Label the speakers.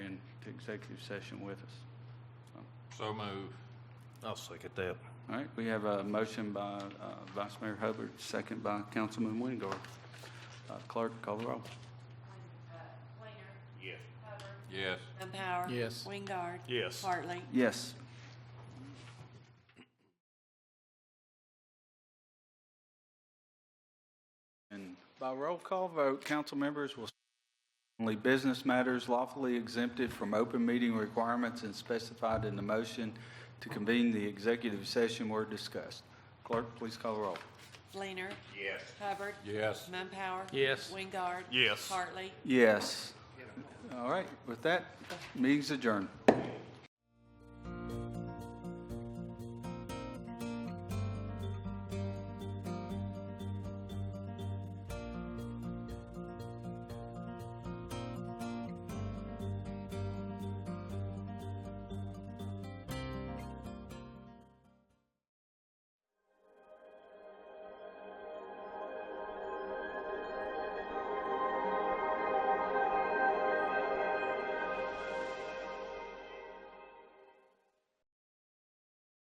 Speaker 1: executive session with us.
Speaker 2: So move.
Speaker 3: I'll second that.
Speaker 1: All right, we have a motion by uh, Vice Mayor Hubbard, second by Councilman Wingard. Uh, Clerk, call the roll.
Speaker 2: Yes.
Speaker 4: Mumpower.
Speaker 5: Yes.
Speaker 4: Wingard.
Speaker 3: Yes.
Speaker 4: Hartley.
Speaker 1: Yes. And by roll call vote, council members will only business matters lawfully exempted from open meeting requirements and specified in the motion to convene the executive session were discussed. Clerk, please call the roll.
Speaker 4: Fleener. Yes. Hubbard.
Speaker 2: Yes.
Speaker 4: Mumpower.
Speaker 5: Yes.
Speaker 4: Wingard.
Speaker 3: Yes.
Speaker 4: Hartley.
Speaker 1: Yes. All right, with that, meeting's adjourned.